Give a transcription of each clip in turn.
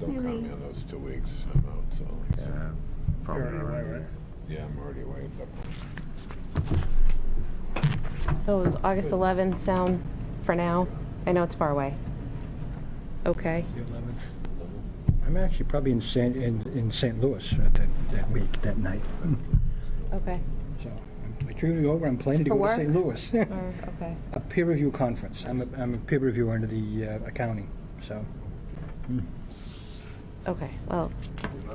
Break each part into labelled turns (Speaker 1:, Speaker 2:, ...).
Speaker 1: Don't count me on those two weeks. I'm out, so.
Speaker 2: Yeah, probably
Speaker 3: You're already away,
Speaker 2: around here.
Speaker 1: Yeah, I'm already away at that point.
Speaker 4: So is August 11th sound for now? I know it's far away. Okay.
Speaker 5: I'm actually probably in St. in, in St. Louis at that, that week, that night.
Speaker 4: Okay.
Speaker 5: So I'm- my trip is over. I'm planning to
Speaker 4: For
Speaker 5: go
Speaker 4: work?
Speaker 5: to St. Louis.
Speaker 4: Or, okay.
Speaker 5: a peer review conference. I'm a, I'm a peer reviewer under the uh, accounting. So
Speaker 4: Okay. Well,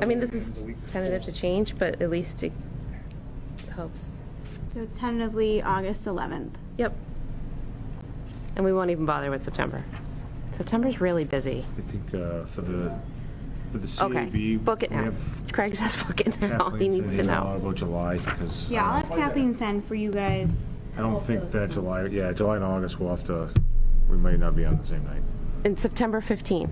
Speaker 4: I mean, this is tentative to change, but at least it helps.
Speaker 6: So tentatively August 11th.
Speaker 4: Yep. And we won't even bother with September. September's really busy.
Speaker 2: I think uh, for the, for the
Speaker 4: Okay.
Speaker 2: CAB.
Speaker 4: Book it
Speaker 2: we
Speaker 4: now.
Speaker 2: have
Speaker 4: Craig says book it now.
Speaker 2: Kathleen
Speaker 4: He
Speaker 2: send
Speaker 4: needs to
Speaker 2: an email
Speaker 4: know.
Speaker 2: About July, because
Speaker 6: Yeah, I'll
Speaker 2: uh,
Speaker 6: have Kathleen send for you guys.
Speaker 2: I don't think that July, yeah, July and August, we'll have to, we might not be on the same night.
Speaker 4: And September 15th.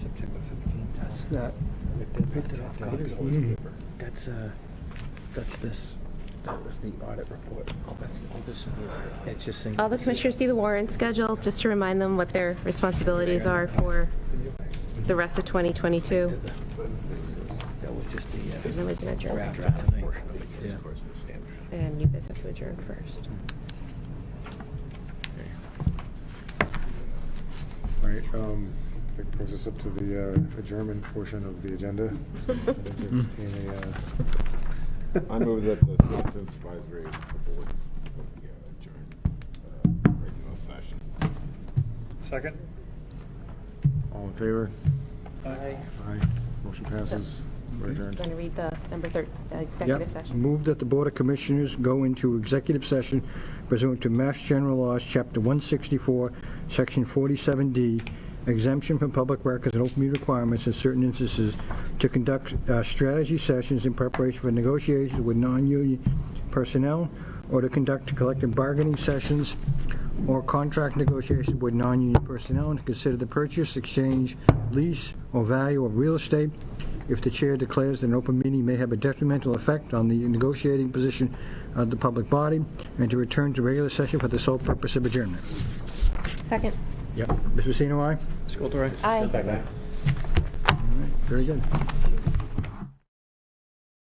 Speaker 5: September 15th. That's not. That's uh, that's this. That was the audit report. Oh, that's all this. It's just saying.
Speaker 4: All the commissioners see the warrant schedule, just to remind them what their responsibilities are for the rest of 2022.
Speaker 5: That was just the uh,
Speaker 4: And then we can adjourn.
Speaker 5: draft tonight. Yeah. Mm.
Speaker 4: And you guys have to adjourn first.
Speaker 3: All right, um, that brings us up to the uh, adjournment portion of the agenda. Entertain a, uh,
Speaker 1: I move that the Citizens Advisory Board of the uh, adjourned uh, regular session.
Speaker 3: Second?
Speaker 2: All in favor?
Speaker 3: Aye.
Speaker 2: Aye. Motion passes. We're adjourned.
Speaker 4: Want to read the number 13, executive
Speaker 5: Yep.
Speaker 4: session?
Speaker 5: Move that the Board of Commissioners go into executive session pursuant to Mass General Laws, Chapter 164, Section 47D, exemption from public records and open meeting requirements in certain instances to conduct uh, strategy sessions in preparation for negotiations with non-union personnel or to conduct collective bargaining sessions or contract negotiations with non-union personnel and to consider the purchase, exchange, lease, or value of real estate if the chair declares that an open meeting may have a detrimental effect on the negotiating position of the public body, and to return to regular session for the sole purpose of adjournment.
Speaker 4: Second.
Speaker 5: Yep. Mms. Pacino, aye?
Speaker 4: Aye.
Speaker 5: All right, Very good.